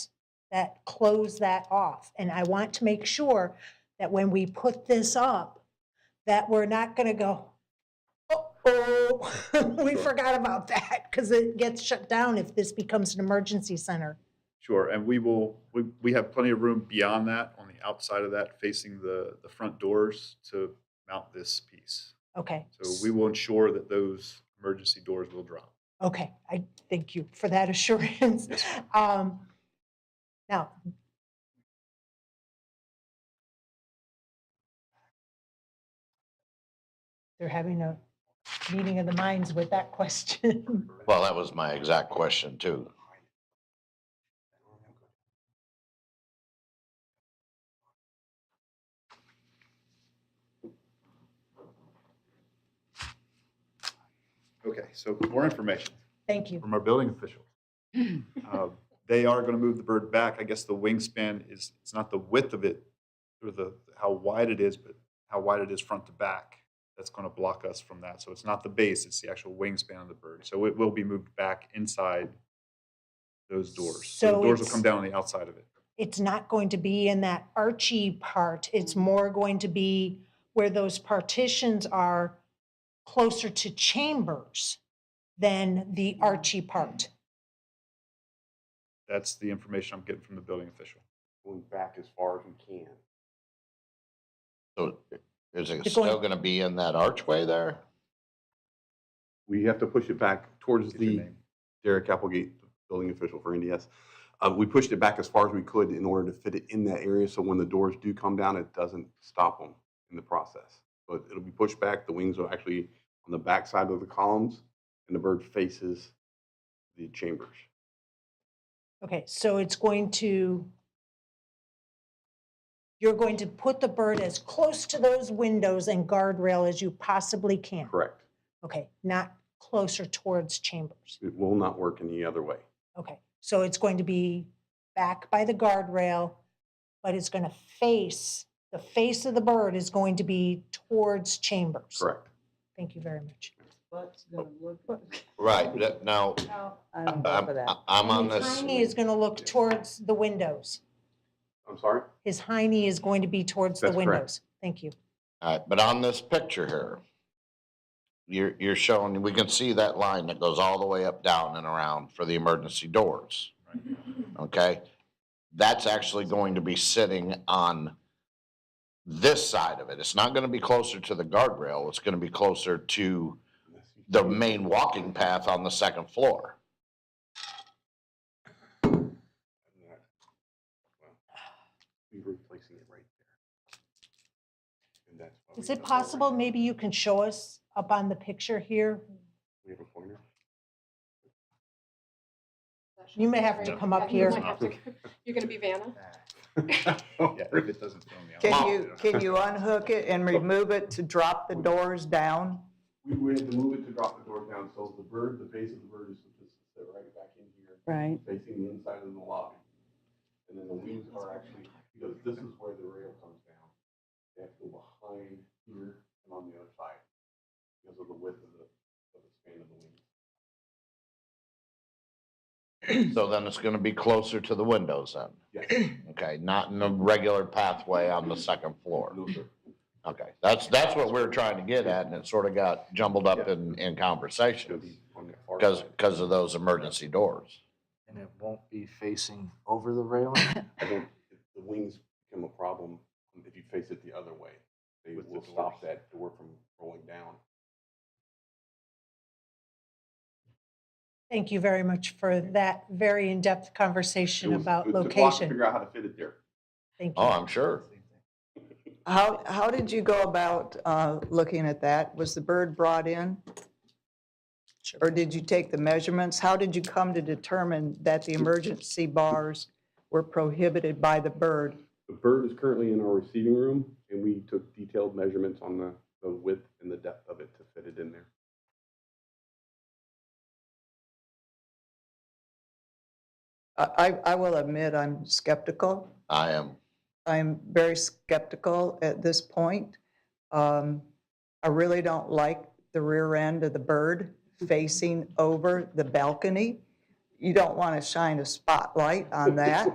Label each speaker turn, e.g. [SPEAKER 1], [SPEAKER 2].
[SPEAKER 1] that close that off. And I want to make sure that when we put this up, that we're not gonna go, oh, we forgot about that, because it gets shut down if this becomes an emergency center.
[SPEAKER 2] Sure, and we will, we, we have plenty of room beyond that, on the outside of that, facing the, the front doors to mount this piece.
[SPEAKER 1] Okay.
[SPEAKER 2] So we will ensure that those emergency doors will drop.
[SPEAKER 1] Okay, I thank you for that assurance.
[SPEAKER 2] Yes, ma'am.
[SPEAKER 1] Um, Now, they're having a meeting of the minds with that question.
[SPEAKER 3] Well, that was my exact question too.
[SPEAKER 2] Okay, so more information
[SPEAKER 1] Thank you.
[SPEAKER 2] from our building official.
[SPEAKER 4] Mm.
[SPEAKER 2] Uh, They are going to move the bird back. I guess the wingspan is, it's not the width of it or the, how wide it is, but how wide it is front to back. That's going to block us from that. So it's not the base, it's the actual wingspan of the bird. So it will be moved back inside those doors.
[SPEAKER 1] So
[SPEAKER 2] So the doors will
[SPEAKER 1] it's-
[SPEAKER 2] come down on the outside of it.
[SPEAKER 1] It's not going to be in that archy part. It's more going to be where those partitions are closer to chambers than the archy part.
[SPEAKER 2] That's the information I'm getting from the building official.
[SPEAKER 5] going back as far as we can.
[SPEAKER 3] So is it
[SPEAKER 1] You're
[SPEAKER 3] still
[SPEAKER 1] going-
[SPEAKER 3] gonna be in that archway there?
[SPEAKER 5] We have to push it back towards
[SPEAKER 2] Get your
[SPEAKER 5] the
[SPEAKER 2] name.
[SPEAKER 5] Derek Applegate, building official for NDS. Uh, we pushed it back as far as we could in order to fit it in that area, so when the doors do come down, it doesn't stop them in the process. But it'll be pushed back, the wings are actually on the back side of the columns, and the bird faces the chambers.
[SPEAKER 1] Okay, so it's going to, you're going to put the bird as close to those windows and guardrail as you possibly can?
[SPEAKER 5] Correct.
[SPEAKER 1] Okay, not closer towards chambers?
[SPEAKER 5] It will not work any other way.
[SPEAKER 1] Okay, so it's going to be back by the guardrail, but it's going to face, the face of the bird is going to be towards chambers?
[SPEAKER 5] Correct.
[SPEAKER 1] Thank you very much.
[SPEAKER 6] What's gonna look like?
[SPEAKER 3] Right, that- now,
[SPEAKER 6] I don't go
[SPEAKER 3] I'm,
[SPEAKER 6] for that.
[SPEAKER 3] I'm
[SPEAKER 1] And
[SPEAKER 3] on this,
[SPEAKER 1] His hiney is going to look towards the windows.
[SPEAKER 5] I'm sorry?
[SPEAKER 1] His hiney is going to be towards the
[SPEAKER 5] That's correct.
[SPEAKER 1] windows. Thank you.
[SPEAKER 3] all right, but on this picture here, you're, you're showing, we can see that line that goes all the way up, down and around for the emergency doors. Okay? That's actually going to be sitting on this side of it. It's not gonna be closer to the guardrail. It's gonna be closer to the main walking path on the second floor.
[SPEAKER 5] We're replacing it right there. And that's why we
[SPEAKER 1] Is
[SPEAKER 5] have
[SPEAKER 1] it
[SPEAKER 5] right
[SPEAKER 1] possible,
[SPEAKER 5] now.
[SPEAKER 1] maybe you can show us up on the picture here?
[SPEAKER 5] We have a pointer?
[SPEAKER 1] You may have to come up
[SPEAKER 7] Yeah,
[SPEAKER 1] here.
[SPEAKER 7] you might have to- You're gonna be Vanna?
[SPEAKER 2] Yeah, if it doesn't. fit on the
[SPEAKER 4] Can
[SPEAKER 2] outside,
[SPEAKER 4] you,
[SPEAKER 2] it'll-
[SPEAKER 4] can you unhook it and remove it to drop the doors down?
[SPEAKER 5] We would have to move it to drop the door down, so the bird, the face of the bird is supposed to sit right back in here,
[SPEAKER 6] Right.
[SPEAKER 5] facing the inside of the lobby. And then the wings are actually, because this is where the rail comes down. They have to go behind here and on the other side because of the width of the, of the span of the wings.
[SPEAKER 3] So then it's gonna be closer to the windows then?
[SPEAKER 5] Yes.
[SPEAKER 3] Okay, not in the regular pathway on the second floor?
[SPEAKER 5] No, sir.
[SPEAKER 3] Okay, that's, that's what we we're trying to get at, and it sort of got jumbled up in, in
[SPEAKER 5] Should
[SPEAKER 3] conversation
[SPEAKER 5] be on the far
[SPEAKER 3] because,
[SPEAKER 5] side.
[SPEAKER 3] because of those emergency doors.
[SPEAKER 8] And it won't be facing over the railing?
[SPEAKER 5] I don't, the wings become a problem um, if you face it the other way. They
[SPEAKER 2] With the
[SPEAKER 5] will
[SPEAKER 2] doors.
[SPEAKER 5] stop that door from rolling down.
[SPEAKER 1] Thank you very much for that very in-depth
[SPEAKER 5] It
[SPEAKER 1] conversation
[SPEAKER 5] was-
[SPEAKER 1] about
[SPEAKER 5] it took a while to
[SPEAKER 1] location.
[SPEAKER 5] Figure out how to fit it there.
[SPEAKER 1] Thank
[SPEAKER 3] Oh,
[SPEAKER 1] you.
[SPEAKER 3] I'm sure.
[SPEAKER 4] How, how did you go about uh, looking at that? Was the bird brought in? Or did you take the measurements? How did you come to determine that the emergency bars were prohibited by the bird?
[SPEAKER 5] The bird is currently in our receiving room, and we took detailed measurements on the, the width and the depth of it to fit it in there.
[SPEAKER 4] I, I I will admit, I'm skeptical.
[SPEAKER 3] I am,
[SPEAKER 4] I'm very skeptical at this point. Um, I really don't like the rear end of the bird facing over the balcony. You don't want to shine a spotlight on that.